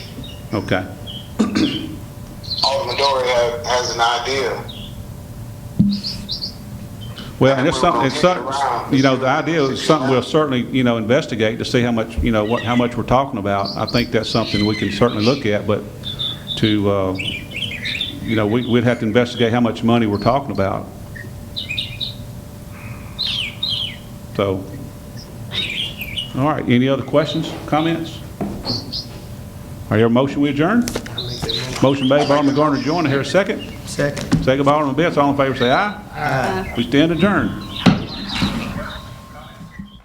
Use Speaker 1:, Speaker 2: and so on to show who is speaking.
Speaker 1: Okay.
Speaker 2: Alderman Dory ha has an idea.
Speaker 1: Well, and it's
Speaker 2: We're
Speaker 1: something,
Speaker 2: gonna
Speaker 1: it's something,
Speaker 2: get around.
Speaker 1: you know, the idea is something we'll certainly, you know, investigate to see how much, you know, what, how much we're talking about. I think that's something we can certainly look at, but to, uh, you know, we, we'd have to investigate how much money we're talking about. So, all right, any other questions, comments? Are there a motion we adjourn? Motion made by Alderman Garner Joyner, here a second.
Speaker 3: Second.
Speaker 1: Second by Alderman Betts, all in favor say aye. We stand adjourned.